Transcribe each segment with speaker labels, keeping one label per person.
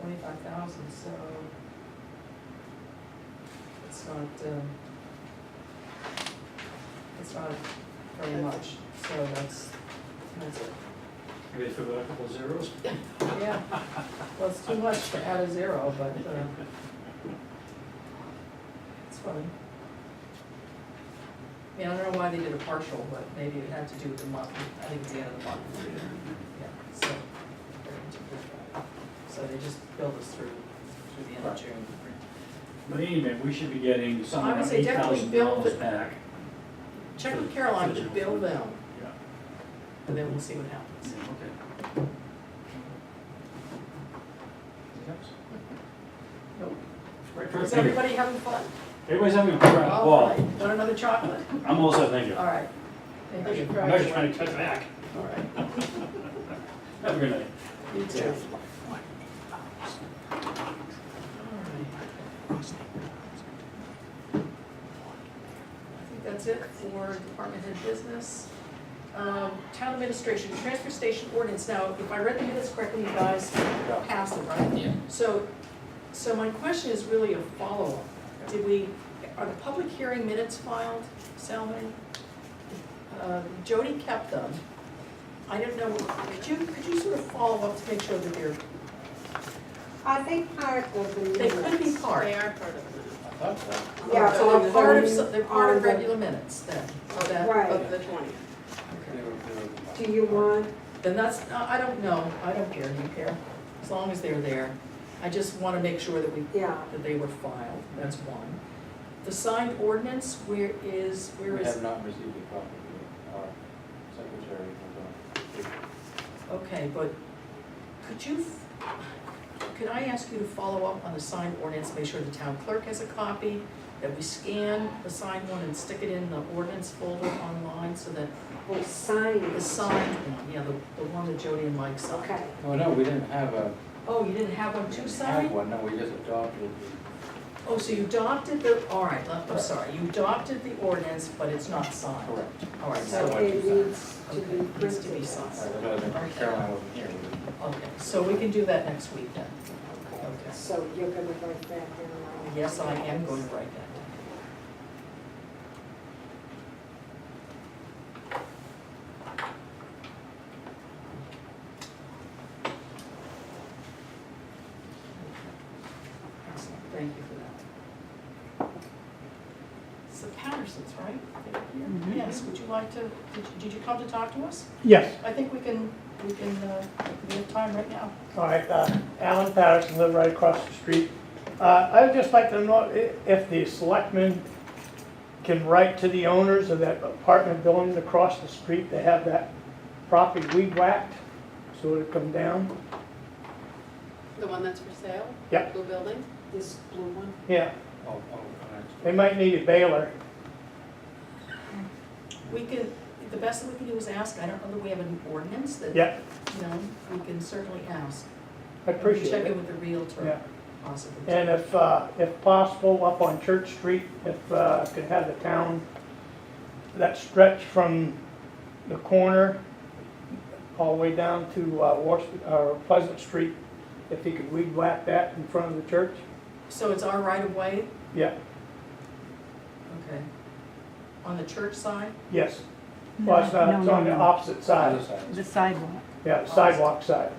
Speaker 1: twenty-five thousand, so it's not, um, it's not very much, so that's, that's it.
Speaker 2: Maybe they forgot a couple zeros.
Speaker 1: Yeah, well, it's too much to add a zero, but, uh, it's fine. I mean, I don't know why they did a partial, but maybe it had to do with the month, I think it's the end of the month, yeah, so. they're into it. So they just billed us through, through the end of June.
Speaker 2: But anyway, we should be getting something
Speaker 1: I would
Speaker 2: like
Speaker 1: say
Speaker 2: eight
Speaker 1: definitely
Speaker 2: thousand
Speaker 1: build
Speaker 2: dollars
Speaker 1: it.
Speaker 2: back.
Speaker 1: Check with Caroline to bill them,
Speaker 2: Yeah,
Speaker 1: and then we'll see what happens.
Speaker 2: yeah, okay. Anything else?
Speaker 1: Nope.
Speaker 2: Great,
Speaker 1: Is
Speaker 2: thank you.
Speaker 1: everybody having fun?
Speaker 2: Everybody's having a crap
Speaker 1: All right,
Speaker 2: ball.
Speaker 1: want another chocolate?
Speaker 2: I'm also, thank you.
Speaker 1: All right. Thank you.
Speaker 2: I'm just trying to cut back.
Speaker 1: All right,
Speaker 2: Have a good night.
Speaker 1: you too. I think that's it for department head business. Um, Town administration, transfer station ordinance, now, if I read the minutes correctly, you guys passed it, right?
Speaker 3: Yeah.
Speaker 1: So, so my question is really a follow-up. Did we, are the public hearing minutes filed, Salman? Uh, Jody kept them. I don't know, could you, could you sort of follow up to make sure that they're,
Speaker 4: I think part of the
Speaker 1: they could be
Speaker 4: minutes.
Speaker 1: part.
Speaker 5: They are part of the,
Speaker 4: Yeah,
Speaker 1: So they're part of,
Speaker 4: on-
Speaker 1: some- they're part
Speaker 4: on
Speaker 1: of
Speaker 4: the-
Speaker 1: regular minutes then, of that.
Speaker 4: Right,
Speaker 5: of the twentieth.
Speaker 4: do you want,
Speaker 1: Then that's, I I don't know, I don't care, you care, as long as they're there. I just wanna make sure that we,
Speaker 4: yeah,
Speaker 1: that they were filed, that's one. The signed ordinance, where is, where
Speaker 3: We
Speaker 1: is,
Speaker 3: have not received a copy yet. Our secretary was
Speaker 1: okay, but could you, could I ask you to follow up on the signed ordinance, make sure the town clerk has a copy, that we scan the signed one and stick it in the ordinance folder online so that
Speaker 4: or oh, sign
Speaker 1: the
Speaker 4: it,
Speaker 1: signed one, yeah, the, the one that Jody and Mike signed.
Speaker 4: okay.
Speaker 3: on. Oh, no, we didn't have a,
Speaker 1: Oh, you didn't have one
Speaker 3: we
Speaker 1: to
Speaker 3: didn't
Speaker 1: sign?
Speaker 3: have one, no, we just adopted.
Speaker 1: Oh, so you adopted the, all right, I'm I'm sorry, you adopted the ordinance, but it's not signed.
Speaker 3: Correct.
Speaker 1: All right,
Speaker 4: So
Speaker 1: so,
Speaker 3: Somewhat.
Speaker 4: it needs to
Speaker 1: Okay,
Speaker 4: be
Speaker 1: needs to be
Speaker 4: printed.
Speaker 1: signed.
Speaker 3: I was other than Caroline wasn't here. we didn't-
Speaker 1: okay, so we can do that next week then.
Speaker 4: Okay.
Speaker 1: Okay.
Speaker 4: So you're gonna write that down.
Speaker 1: Yes, I am going to write that down. Excellent, thank you for that. It's the Pattersons, right? Yes, would you like to, did you- did you come to talk to us?
Speaker 6: Yes,
Speaker 1: I think we can, we can, uh, we have time right now.
Speaker 6: all right, uh, Alan Patterson, live right across the street. Uh, I would just like to know i- if the selectmen can write to the owners of that apartment building across the street, they have that property weed whacked, so it'll come down.
Speaker 5: The one that's for sale?
Speaker 6: Yeah.
Speaker 5: Blue building?
Speaker 4: This blue one?
Speaker 6: Yeah,
Speaker 3: Oh, oh,
Speaker 6: they might need a baler.
Speaker 1: We can, the best that we can do is ask, I don't know that we have an ordinance that,
Speaker 6: Yeah,
Speaker 1: you know, we can certainly ask.
Speaker 6: I appreciate
Speaker 1: Check in
Speaker 6: it.
Speaker 1: with the
Speaker 6: Yeah,
Speaker 1: Realtor, possibly.
Speaker 6: and if, uh, if possible, up on Church Street, if, uh, could have the town, that stretch from the corner all the way down to, uh, Wash, or Pleasant Street, if he could weed whack that in front of the church,
Speaker 1: So it's our right of way?
Speaker 6: yeah,
Speaker 1: Okay. On the church side?
Speaker 6: yes. Well, it's not, it's on the opposite
Speaker 3: Other
Speaker 6: side,
Speaker 3: side.
Speaker 7: The sidewalk.
Speaker 6: yeah, sidewalk side,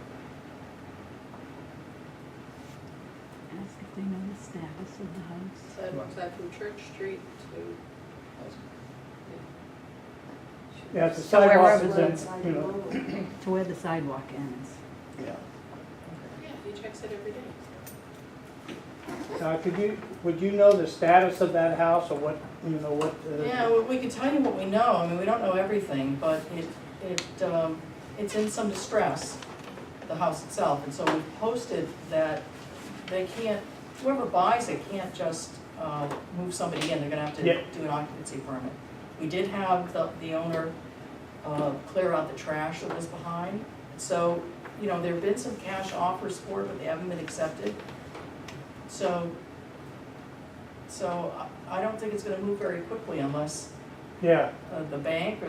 Speaker 7: Ask if they know the status of the house.
Speaker 5: Sidewalks out from Church Street to,
Speaker 6: yeah, it's the
Speaker 7: So wherever
Speaker 6: sidewalk
Speaker 4: Right
Speaker 6: is
Speaker 4: side
Speaker 6: in, you know,
Speaker 4: below.
Speaker 7: To where the sidewalk ends.
Speaker 6: yeah.
Speaker 5: yeah, he checks it every day.
Speaker 6: Now, could you, would you know the status of that house or what, you know, what? uh,
Speaker 1: Yeah, well, we can tell you what we know, I mean, we don't know everything, but it, it, um, it's in some distress, the house itself, and so we posted that they can't, whoever buys it can't just, uh, move somebody in, they're gonna have to
Speaker 6: Yeah.
Speaker 1: do an occupancy permit. We did have the, the owner, uh, clear out the trash that was behind, so, you know, there've been some cash offers for it, but they haven't been accepted. So, so I, I don't think it's gonna move very quickly unless
Speaker 6: Yeah.
Speaker 1: uh, the bank or